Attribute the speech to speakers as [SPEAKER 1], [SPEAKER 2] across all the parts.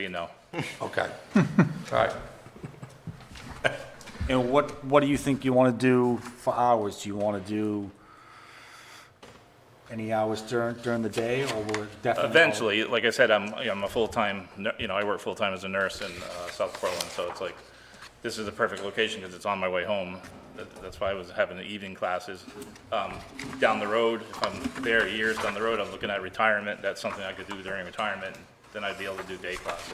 [SPEAKER 1] you know.
[SPEAKER 2] Okay, all right.
[SPEAKER 3] And what, what do you think you want to do for hours? Do you want to do any hours during, during the day, or will it definitely?
[SPEAKER 1] Eventually, like I said, I'm, I'm a full-time, nu- you know, I work full-time as a nurse in uh, South Portland, so it's like, this is the perfect location because it's on my way home. That- That's why I was having the evening classes. Um, Down the road, if I'm there years down the road, I'm looking at retirement, that's something I could do during retirement, then I'd be able to do day classes.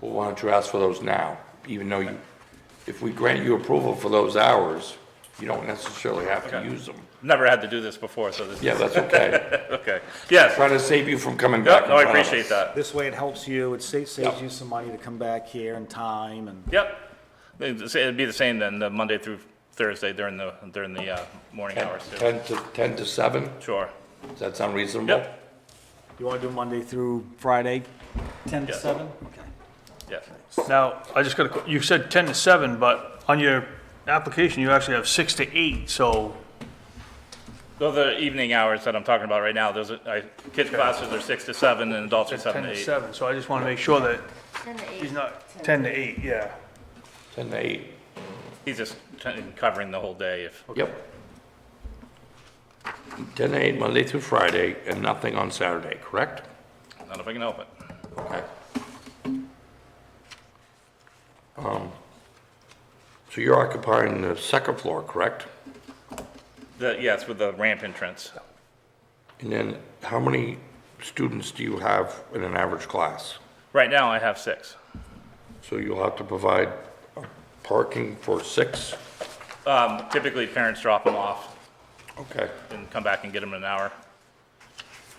[SPEAKER 2] Well, why don't you ask for those now, even though you, if we grant you approval for those hours, you don't necessarily have to
[SPEAKER 1] Okay.
[SPEAKER 2] use them.
[SPEAKER 1] Never had to do this before, so this is.
[SPEAKER 2] Yeah, that's okay.
[SPEAKER 1] Okay, yes,
[SPEAKER 2] Trying to save you from coming back.
[SPEAKER 1] Yep,
[SPEAKER 2] in
[SPEAKER 1] no, I
[SPEAKER 2] front of us.
[SPEAKER 1] appreciate that.
[SPEAKER 3] This way it helps you, it saves, saves
[SPEAKER 2] Yeah.
[SPEAKER 3] you some money to come back here in time, and
[SPEAKER 1] Yep. It'd say- it'd be the same then, the Monday through Thursday during the, during the uh, morning hours too.
[SPEAKER 2] Ten to, ten to seven,
[SPEAKER 1] Sure.
[SPEAKER 2] does that sound reasonable?
[SPEAKER 1] Yep,
[SPEAKER 3] you want to do Monday through Friday, ten to
[SPEAKER 1] Yeah.
[SPEAKER 3] seven? Okay.
[SPEAKER 1] yes.
[SPEAKER 4] Now, I just got a, que- you said 10 to 7, but on your application, you actually have 6 to 8, so,
[SPEAKER 1] Those are evening hours that I'm talking about right now. Those are, I, kids' classes are six to seven and adults are
[SPEAKER 4] 10
[SPEAKER 1] seven to
[SPEAKER 4] to
[SPEAKER 1] eight.
[SPEAKER 4] 7, so I just want to make sure that
[SPEAKER 5] Ten to eight.
[SPEAKER 4] he's not 10 to 8, yeah.
[SPEAKER 2] Ten to eight,
[SPEAKER 1] He's just t- covering the whole day if,
[SPEAKER 2] yep. Ten to eight, Monday through Friday, and nothing on Saturday, correct?
[SPEAKER 1] not if I can help it.
[SPEAKER 2] Okay. Um, So you're occupying the second floor, correct?
[SPEAKER 1] The, yes, with the ramp entrance.
[SPEAKER 2] And then how many students do you have in an average class?
[SPEAKER 1] Right now I have six.
[SPEAKER 2] So you'll have to provide parking for six?
[SPEAKER 1] Um, typically parents drop them off
[SPEAKER 2] Okay,
[SPEAKER 1] and come back and get them in an hour.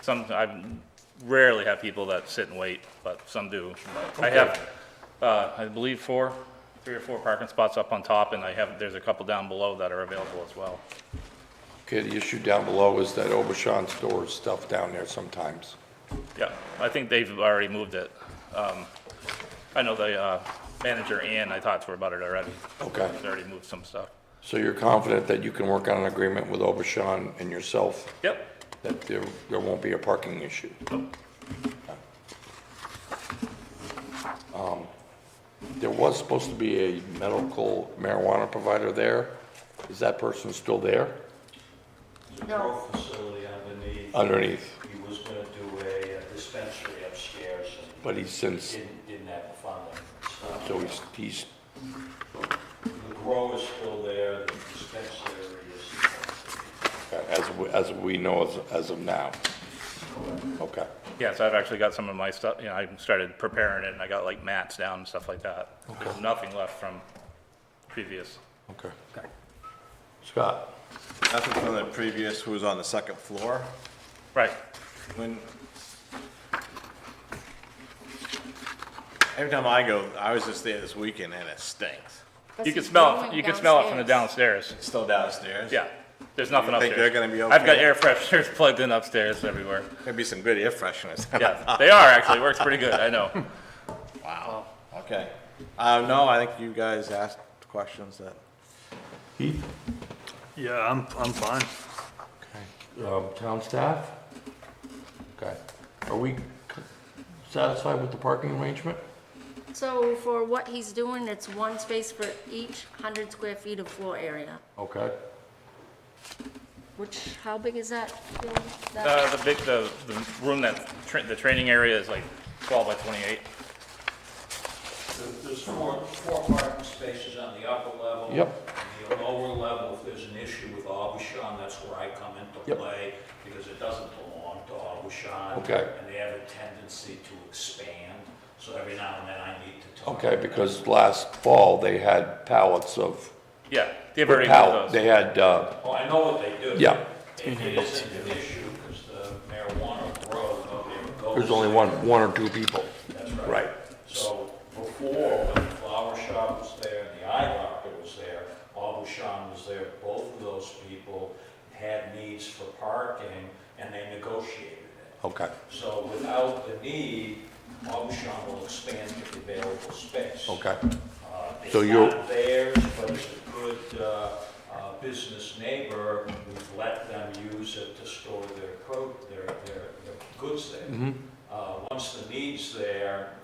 [SPEAKER 1] Some, I rarely have people that sit and wait, but some do. But I have, uh, I believe four, three or four parking spots up on top, and I have, there's a couple down below that are available as well.
[SPEAKER 2] okay, the issue down below is that Obashan stores stuff down there sometimes.
[SPEAKER 1] Yeah, I think they've already moved it. Um, I know the uh, manager, Ann, I talked to her about it already.
[SPEAKER 2] Okay.
[SPEAKER 1] She's already moved some stuff.
[SPEAKER 2] So you're confident that you can work on an agreement with Obashan and yourself
[SPEAKER 1] Yep,
[SPEAKER 2] that there, there won't be a parking issue? Um, There was supposed to be a medical marijuana provider there. Is that person still there?
[SPEAKER 5] No,
[SPEAKER 6] facility underneath.
[SPEAKER 2] Underneath,
[SPEAKER 6] He was gonna do a uh, dispensary upstairs and
[SPEAKER 2] but he's since,
[SPEAKER 6] didn't, didn't have the funding. So
[SPEAKER 2] so he's, he's,
[SPEAKER 6] The grow is still there, the dispensary is. uh,
[SPEAKER 2] as, we- as we know as, as of now. Okay,
[SPEAKER 1] yes, I've actually got some of my stuff, you know, I started preparing it, and I got like mats down and stuff like that. There's nothing left from previous.
[SPEAKER 2] okay. Scott?
[SPEAKER 7] Nothing from the previous, who was on the second floor,
[SPEAKER 1] Right,
[SPEAKER 7] when... Every time I go, I was just there this weekend and it stinks.
[SPEAKER 5] but
[SPEAKER 1] you can
[SPEAKER 5] it's
[SPEAKER 1] smell, it.
[SPEAKER 5] going
[SPEAKER 1] you can smell it from the
[SPEAKER 5] downstairs.
[SPEAKER 1] downstairs.
[SPEAKER 7] It's still downstairs.
[SPEAKER 1] Yeah, there's nothing
[SPEAKER 7] You
[SPEAKER 1] upstairs.
[SPEAKER 7] think they're gonna be
[SPEAKER 1] I've got
[SPEAKER 7] okay?
[SPEAKER 1] air fresheners plugged in upstairs everywhere.
[SPEAKER 7] There'd be some good air fresheners.
[SPEAKER 1] Yeah, they are actually, works pretty good, I know.
[SPEAKER 7] Wow. Okay. Uh, no, I think you guys asked questions that...
[SPEAKER 2] Heath?
[SPEAKER 4] Yeah, I'm, I'm fine.
[SPEAKER 2] Um, town staff? Okay. Are we satisfied with the parking arrangement?
[SPEAKER 5] So for what he's doing, it's one space for each hundred square feet of floor area,
[SPEAKER 2] Okay.
[SPEAKER 5] which, how big is that? Bill? That-
[SPEAKER 1] Uh, the big, the, the room that, tra- the training area is like twelve by twenty-eight.
[SPEAKER 6] There's four, four parking spaces on the upper level.
[SPEAKER 2] Yep.
[SPEAKER 6] The lower level, if there's an issue with Obashan, that's where I come into
[SPEAKER 2] Yep.
[SPEAKER 6] play, because it doesn't belong to Obashan.
[SPEAKER 2] Okay.
[SPEAKER 6] And they have a tendency to expand, so every now and then I need to talk.
[SPEAKER 2] Okay, because last fall, they had pallets of,
[SPEAKER 1] Yeah, they've already
[SPEAKER 2] pallet-
[SPEAKER 1] moved
[SPEAKER 2] they
[SPEAKER 1] those.
[SPEAKER 2] had, uh,
[SPEAKER 6] Oh, I know what they do.
[SPEAKER 2] Yeah.
[SPEAKER 6] It it isn't an issue, because the marijuana grows, nobody ever goes.
[SPEAKER 2] there's only one, one or two people.
[SPEAKER 6] That's
[SPEAKER 2] Right.
[SPEAKER 6] So before, when the flower shop was there and the eye doctor was there, Abushan was there, both of those people had needs for parking, and they negotiated it.
[SPEAKER 2] Okay,
[SPEAKER 6] So without the need, Abushan will expand the available space.
[SPEAKER 2] okay.
[SPEAKER 6] Uh, It's
[SPEAKER 2] So you're-
[SPEAKER 6] not theirs, but it's a good uh, uh, business neighbor, we've let them use it to store their pro, their, their their goods there. Uh, Once the need's there,